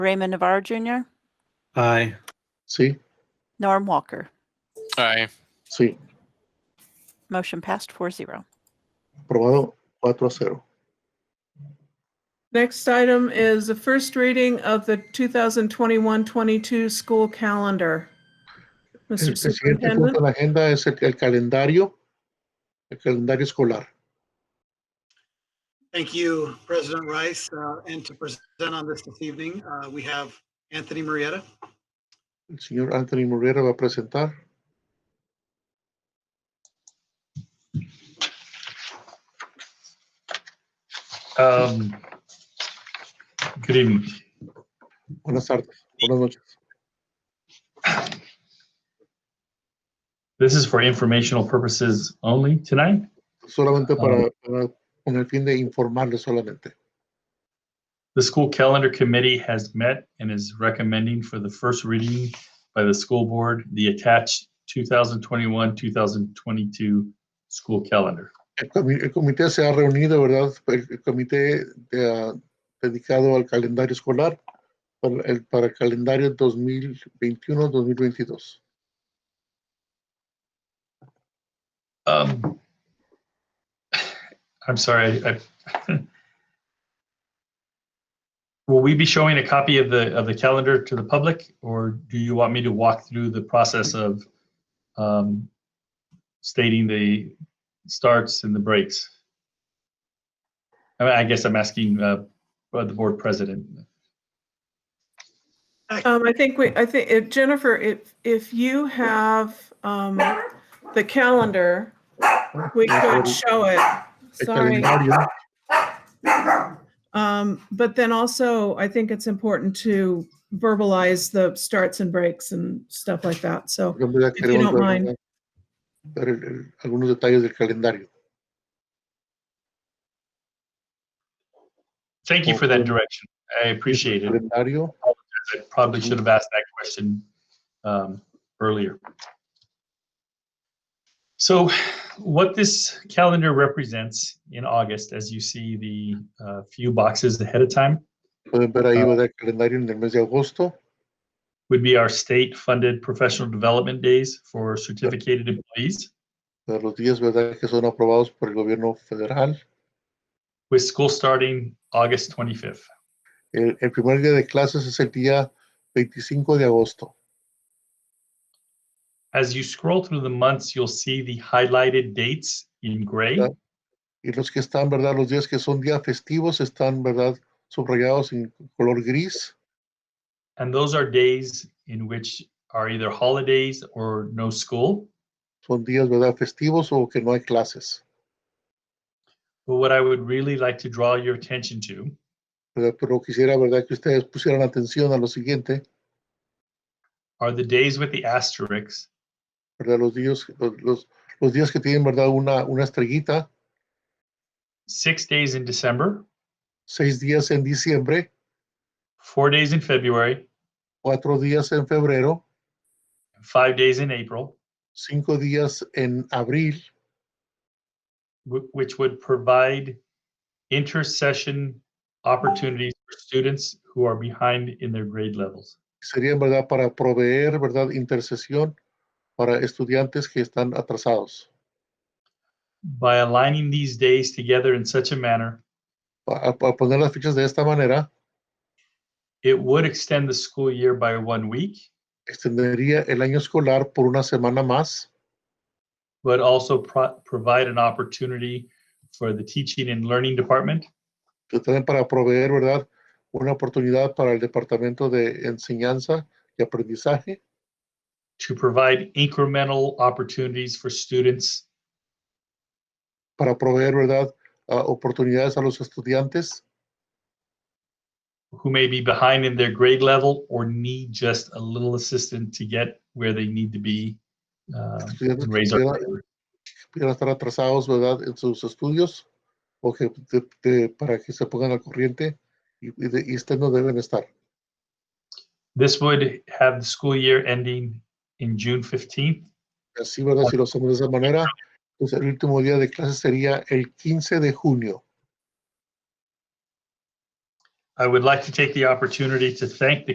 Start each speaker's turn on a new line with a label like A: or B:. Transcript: A: Raymond Navarro Jr.,
B: Aye.
C: Sí,
A: Norm Walker.
D: Aye.
C: sí,
A: Motion passed 4 0.
C: aprobado 4 a 0.
E: Next item is the first reading of the 2021-22 school calendar.
C: El,
E: Mr.
C: el siguiente punto
E: Superintendent,
C: en la agenda es el, el calendario, el calendario escolar.
F: Thank you, President Rice. Uh, And to present on this this evening, uh, we have Anthony Marietta.
C: El señor Anthony Murriera va a presentar.
G: Um, Good evening.
C: Buenas tardes, buenas noches.
G: This is for informational purposes only tonight.
C: Solamente para,
G: Ah.
C: para- con el fin de informarle solamente.
G: The school calendar committee has met and is recommending for the first reading by the school board, the attached 2021-2022 school calendar.
C: El, comi- el comité se ha reunido, ¿verdad? El, el comité de, ah, dedicado al calendario escolar para el, para el calendario 2021-2022.
G: Um, I'm sorry, I. Will we be showing a copy of the, of the calendar to the public, or do you want me to walk through the process of um, stating the starts and the breaks? I mean, I guess I'm asking uh, uh, the board president.
E: um, I think we, I think, if- Jennifer, if, if you have um, the calendar, we could show it.
C: El
E: Sorry.
C: calendario,
E: Um, But then also, I think it's important to verbalize the starts and breaks and stuff like that. So
C: por ejemplo, ya
E: If you
C: queremos
E: don't
C: ver,
E: mind.
C: ¿verdad? ver el- el- algunos detalles del calendario.
G: Thank you for that direction. I appreciate it.
C: calendario.
G: I probably should have asked that question um, earlier. So what this calendar represents in August, as you see the uh, few boxes ahead of time,
C: Pueden ver ahí,
G: Ah.
C: ¿verdad? El calendario en el mes de agosto.
G: would be our state-funded professional development days for certificated employees
C: ¿verdad? Los días, ¿verdad? Que son aprobados por el gobierno federal.
G: with school starting August 25th.
C: El, el primer día de clases es el día 25 de agosto.
G: As you scroll through the months, you'll see the highlighted dates in gray.
C: Yeah. Y los que están, ¿verdad? Los días que son días festivos están, ¿verdad? Subrayados en color gris.
G: And those are days in which are either holidays or no school.
C: Son días, ¿verdad? Festivos o que no hay clases.
G: But what I would really like to draw your attention to
C: ¿verdad? Pero quisiera, ¿verdad? Que ustedes pusieran atención a lo siguiente,
G: are the days with the asterisks
C: ¿verdad? Los días, los, los- los días que tienen, ¿verdad? Una, una estrellita.
G: six days in December,
C: Seis días en diciembre,
G: four days in February,
C: cuatro días en febrero,
G: and five days in April,
C: cinco días en abril,
G: wh- which would provide intercession opportunities for students who are behind in their grade levels.
C: serían, ¿verdad? Para proveer, ¿verdad? Intercesión para estudiantes que están atrasados.
G: By aligning these days together in such a manner,
C: A, a- a poner las fichas de esta manera,
G: it would extend the school year by one week,
C: extendería el año escolar por una semana más,
G: but also pro- provide an opportunity for the teaching and learning department
C: pero también para proveer, ¿verdad? Una oportunidad para el Departamento de Enseñanza y Aprendizaje,
G: to provide incremental opportunities for students
C: para proveer, ¿verdad? a- oportunidades a los estudiantes
G: who may be behind in their grade level or need just a little assistance to get where they need to be. uh,
C: Estudiantes
G: to
C: que
G: raise our
C: quieran-
G: grade.
C: pudieran estar atrasados, ¿verdad? En sus estudios o que de- de- para que se pongan al corriente y, y, de- y estén donde deben estar.
G: This would have the school year ending in June 15th
C: Así, ¿verdad? Si lo hacemos de esa manera, pues el último día de clase sería el 15 de junio.
G: I would like to take the opportunity to thank the